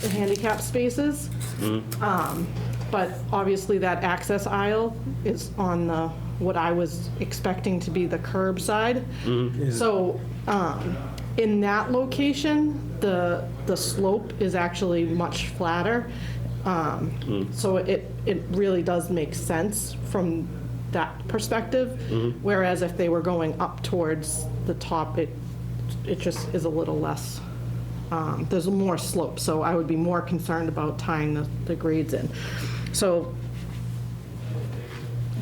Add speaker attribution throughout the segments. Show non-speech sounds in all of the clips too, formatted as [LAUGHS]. Speaker 1: the handicap spaces. Um, But obviously, that access aisle is on the, what I was expecting to be the curb side. So um, in that location, the, the slope is actually much flatter. Um, So it, it really does make sense from that perspective. Whereas if they were going up towards the top, it, it just is a little less um, there's more slope, so I would be more concerned about tying the, the grades in. So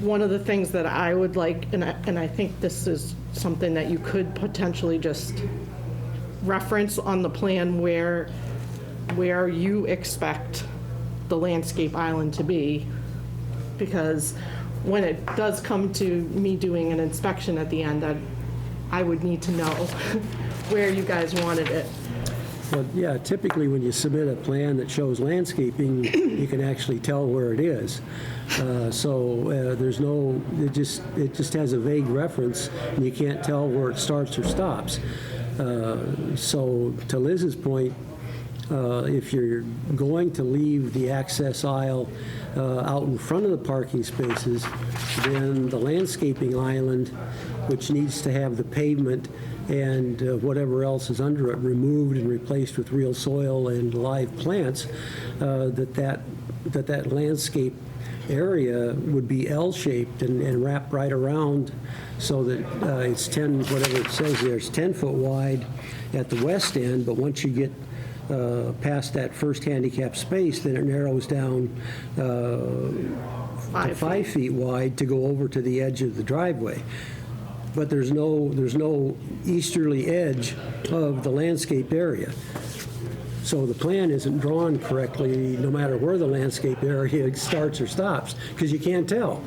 Speaker 1: one of the things that I would like, and I, and I think this is something that you could potentially just reference on the plan where, where you expect the landscape island to be, because when it does come to me doing an inspection at the end, I, I would need to know [LAUGHS] where you guys wanted it.
Speaker 2: But yeah, typically when you submit a plan that shows landscaping, you can actually tell where it is. Uh, So uh, there's no, it just, it just has a vague reference, and you can't tell where it starts or stops. Uh, So to Liz's point, uh, if you're going to leave the access aisle uh, out in front of the parking spaces, then the landscaping island, which needs to have the pavement and uh, whatever else is under it removed and replaced with real soil and live plants, uh, that that, that that landscape area would be L-shaped and and wrap right around so that uh, it's 10, whatever it says there, it's 10-foot wide at the west end, but once you get uh, past that first handicap space, then it narrows down uh, to
Speaker 1: Five
Speaker 2: five feet wide to go over to the edge of the driveway. But there's no, there's no easterly edge of the landscape area. So the plan isn't drawn correctly, no matter where the landscape area [LAUGHS] starts or stops, because you can't tell.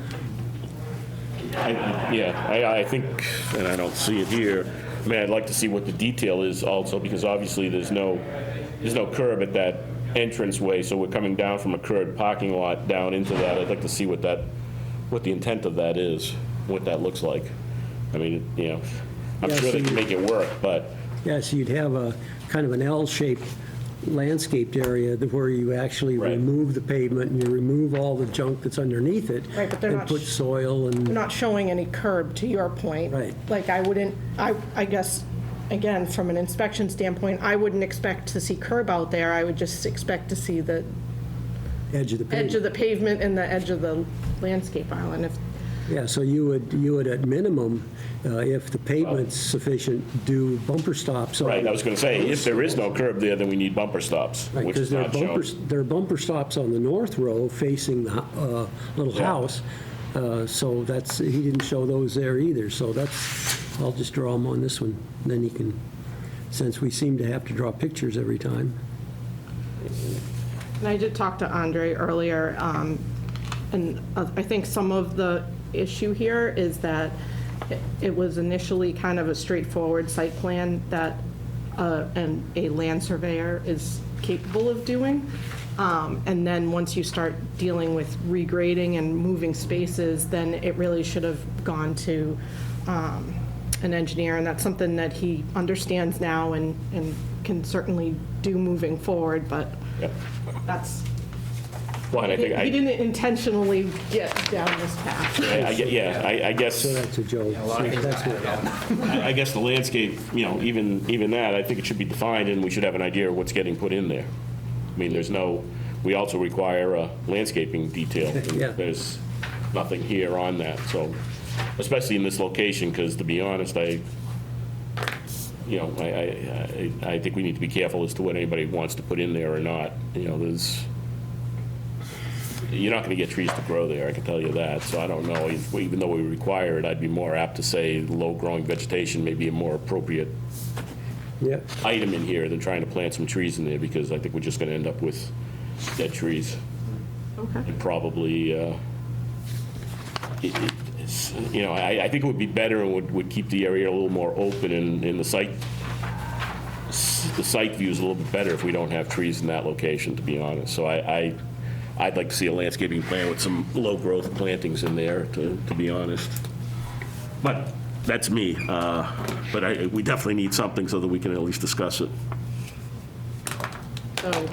Speaker 3: I- Yeah, I, I think, and I don't see it here, I mean, I'd like to see what the detail is also, because obviously there's no, there's no curb at that entranceway, so we're coming down from a curved parking lot down into that. I'd like to see what that, what the intent of that is, what that looks like. I mean, you know, I'm
Speaker 2: Yeah,
Speaker 3: sure they
Speaker 2: so
Speaker 3: can
Speaker 2: you-
Speaker 3: make it work, but,
Speaker 2: Yeah, so you'd have a kind of an L-shaped landscaped area that- where you actually
Speaker 3: Right.
Speaker 2: remove the pavement and you remove all the junk that's underneath it.
Speaker 1: Right, but they're not
Speaker 2: And put
Speaker 1: sh-
Speaker 2: soil
Speaker 1: We're
Speaker 2: and,
Speaker 1: not showing any curb, to your point.
Speaker 2: Right.
Speaker 1: Like, I wouldn't, I, I guess, again, from an inspection standpoint, I wouldn't expect to see curb out there. I would just expect to see the
Speaker 2: edge of the pavement.
Speaker 1: edge of the pavement and the edge of the landscape island. If
Speaker 2: Yeah, so you would, you would at minimum, uh, if the pavement's sufficient, do bumper stops on.
Speaker 3: right, I was going to say, if there is no curb there, then we need bumper stops,
Speaker 2: Right,
Speaker 3: which
Speaker 2: 'cause
Speaker 3: is
Speaker 2: there are
Speaker 3: not shown.
Speaker 2: bumpers, there are bumper stops on the north row facing the uh, little
Speaker 3: Yeah.
Speaker 2: house. Uh, So that's, he didn't show those there either, so that's, I'll just draw them on this one. Then he can, since we seem to have to draw pictures every time.
Speaker 1: And I did talk to Andre earlier, um, and uh, I think some of the issue here is that it- it was initially kind of a straightforward site plan that uh, an- a land surveyor is capable of doing. Um, And then once you start dealing with regrading and moving spaces, then it really should have gone to um, an engineer, and that's something that he understands now and and can certainly do moving forward, but
Speaker 3: Yeah.
Speaker 1: that's,
Speaker 3: Well, and I
Speaker 1: he
Speaker 3: think,
Speaker 1: he
Speaker 3: I-
Speaker 1: didn't intentionally get down this path.
Speaker 3: I, I get- yeah, I I guess.
Speaker 2: So that's a joke. That's what-
Speaker 3: I I guess the landscape, you know, even, even that, I think it should be defined, and we should have an idea of what's getting put in there. I mean, there's no, we also require a landscaping detail.
Speaker 2: Yeah.
Speaker 3: There's nothing here on that, so, especially in this location, because to be honest, I, you know, I, I- I, I think we need to be careful as to what anybody wants to put in there or not. You know, there's, you're not going to get trees to grow there, I can tell you that. So I don't know, if- even though we require it, I'd be more apt to say low-growing vegetation may be a more appropriate
Speaker 2: Yeah,
Speaker 3: item in here than trying to plant some trees in there, because I think we're just going to end up with dead trees
Speaker 1: Okay.
Speaker 3: and probably, uh, it- it- it's- you know, I, I think it would be better and would, would keep the area a little more open and, and the site, s- the site view is a little bit better if we don't have trees in that location, to be honest. So I, I, I'd like to see a landscaping plan with some low-growth plantings in there, to, to be honest. But that's me. uh, But I, we definitely need something so that we can at least discuss it.
Speaker 1: So